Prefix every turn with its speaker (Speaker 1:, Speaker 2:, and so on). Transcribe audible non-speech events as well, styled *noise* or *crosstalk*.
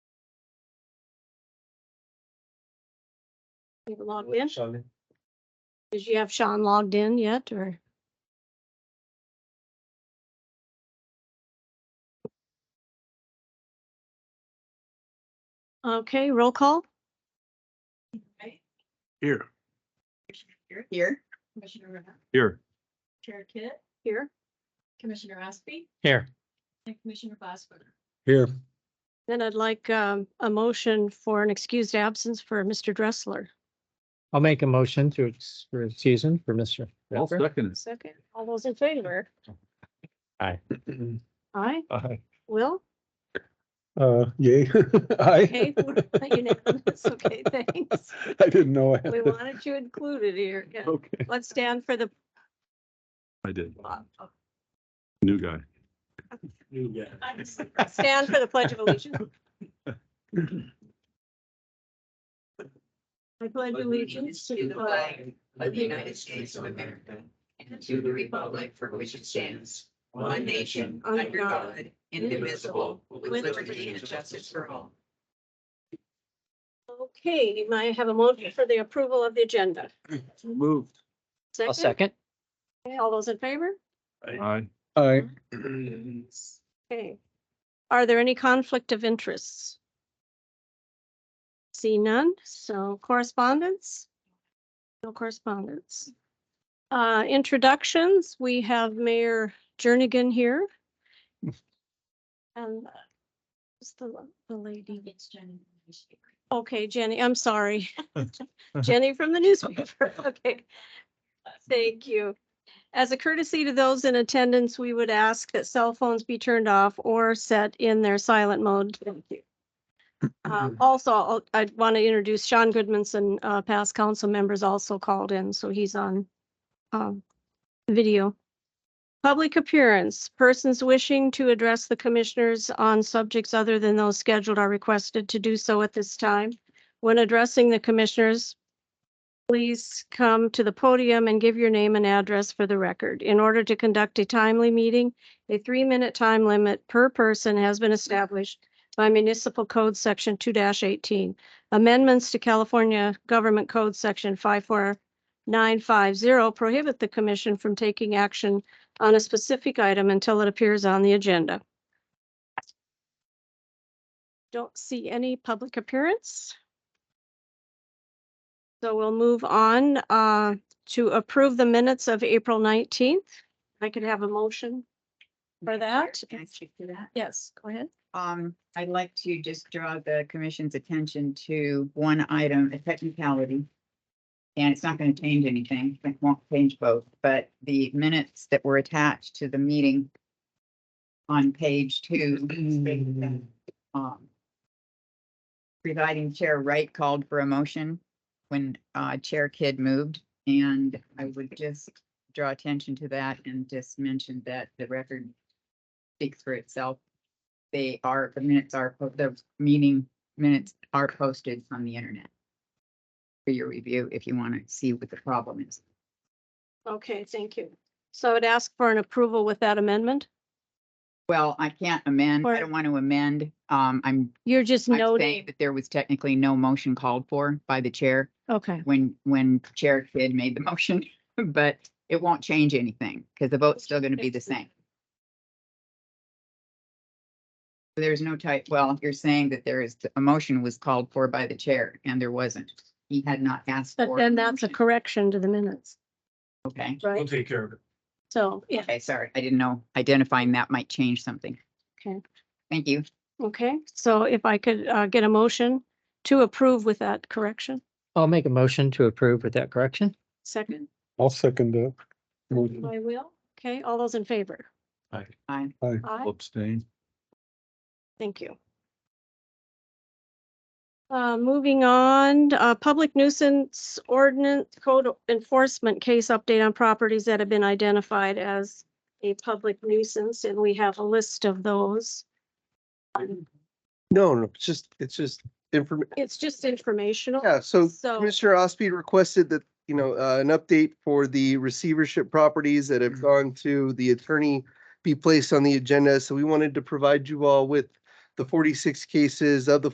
Speaker 1: You logged in? Did you have Sean logged in yet or? Okay, roll call?
Speaker 2: Here.
Speaker 3: Here. Here. Commissioner Rivera.
Speaker 2: Here.
Speaker 3: Chair Kit,
Speaker 1: Here.
Speaker 3: Commissioner Ospey,
Speaker 2: Here.
Speaker 3: and Commissioner Glassberger.
Speaker 2: Here.
Speaker 1: Then I'd like um, a motion for an excused absence for Mr. Dressler.
Speaker 4: I'll make a motion to, ex- for a season for mister
Speaker 2: I'll second
Speaker 1: Second. All those in favor?
Speaker 2: it. *clears throat*
Speaker 1: Aye.
Speaker 2: Aye.
Speaker 1: Will?
Speaker 2: Uh, yay. *laughs* Aye.
Speaker 1: *laughs* Okay. unanimous. Okay, thanks.
Speaker 2: I didn't know. I had
Speaker 1: *laughs* We
Speaker 2: to-
Speaker 1: wanted you included here. Yeah.
Speaker 2: Okay.
Speaker 1: Let's stand for the
Speaker 2: I did.
Speaker 1: uh,
Speaker 2: New guy.
Speaker 1: stand for the pledge of allegiance. I pledge allegiance to the flag
Speaker 5: of the United States of America and to the republic for which it stands, one nation,
Speaker 1: Under
Speaker 5: under
Speaker 1: God,
Speaker 5: God, indivisible, with liberty and justice for all.
Speaker 1: Okay, may I have a motion for the approval of the agenda?
Speaker 2: Moved.
Speaker 4: I'll second.
Speaker 1: Okay, All those in favor?
Speaker 2: Aye.
Speaker 4: Aye.
Speaker 1: Okay. Are there any conflict of interests? See none, so correspondence? No correspondence. Uh, introductions, we have Mayor Jernigan here. And uh, who's the, la- the lady?
Speaker 3: It's Jenny.
Speaker 1: Okay, Jenny, I'm sorry. *laughs* Jenny from the newspaper. *laughs* Okay. Thank you. As a courtesy to those in attendance, we would ask that cell phones be turned off or set in their silent mode. Thank you. Um, Also, I'll- I'd want to introduce Sean Goodmanson, uh, past council members also called in, so he's on um, video. Public appearance, persons wishing to address the commissioners on subjects other than those scheduled are requested to do so at this time. When addressing the commissioners, please come to the podium and give your name and address for the record. In order to conduct a timely meeting, a three-minute time limit per person has been established by Municipal Code Section two eighteen. Amendments to California Government Code Section five four nine five zero prohibit the commission from taking action on a specific item until it appears on the agenda. Don't see any public appearance. So we'll move on uh, to approve the minutes of April 19th. If I could have a motion. For that?
Speaker 6: Can I speak to that?
Speaker 1: Yes, go ahead.
Speaker 6: Um, I'd like to just draw the commission's attention to one item, a technicality. And it's not going to change anything, it won't change both, but the minutes that were attached to the meeting on page two. um, Presiding Chair Wright called for a motion when uh, Chair Kidd moved, and I would just draw attention to that and just mention that the record speaks for itself they are, the minutes are, po- the meeting minutes are posted on the internet for your review if you want to see what the problem is.
Speaker 1: Okay, thank you. So I'd ask for an approval with that amendment.
Speaker 6: Well, I can't amend,
Speaker 1: Or-
Speaker 6: I don't want to amend. Um, I'm,
Speaker 1: You're just
Speaker 6: I'm saying
Speaker 1: noting,
Speaker 6: that there was technically no motion called for by the chair
Speaker 1: okay,
Speaker 6: when, when Chair Kidd made the *laughs* motion, but it won't change anything because the vote's still going to be the same. There's no type, well, you're saying that there is, a motion was called for by the chair and there wasn't. He had not asked for.
Speaker 1: but then that's a
Speaker 6: motion.
Speaker 1: correction to the minutes,
Speaker 6: Okay,
Speaker 1: right?
Speaker 2: take care of it.
Speaker 1: So, yeah,
Speaker 6: okay, sorry. I didn't know identifying that might change something.
Speaker 1: Okay.
Speaker 6: Thank you.
Speaker 1: okay. So if I could uh, get a motion to approve with that correction,
Speaker 4: I'll make a motion to approve with that correction.
Speaker 1: second,
Speaker 2: I'll second that.
Speaker 1: I will. Okay, all those in favor?
Speaker 6: Bye.
Speaker 1: Aye.
Speaker 2: Abstain.
Speaker 1: Thank you. Uh, moving on, uh, public nuisance ordinance code enforcement case update on properties that have been identified as a public nuisance, and we have a list of those.
Speaker 7: No, no, it's just, it's just inform,
Speaker 1: It's just informational.
Speaker 7: yeah, so
Speaker 1: So-
Speaker 7: Commissioner Ospey requested that, you know, uh, an update for the receivership properties that have gone to the attorney be placed on the agenda, so we wanted to provide you all with the forty-six cases of the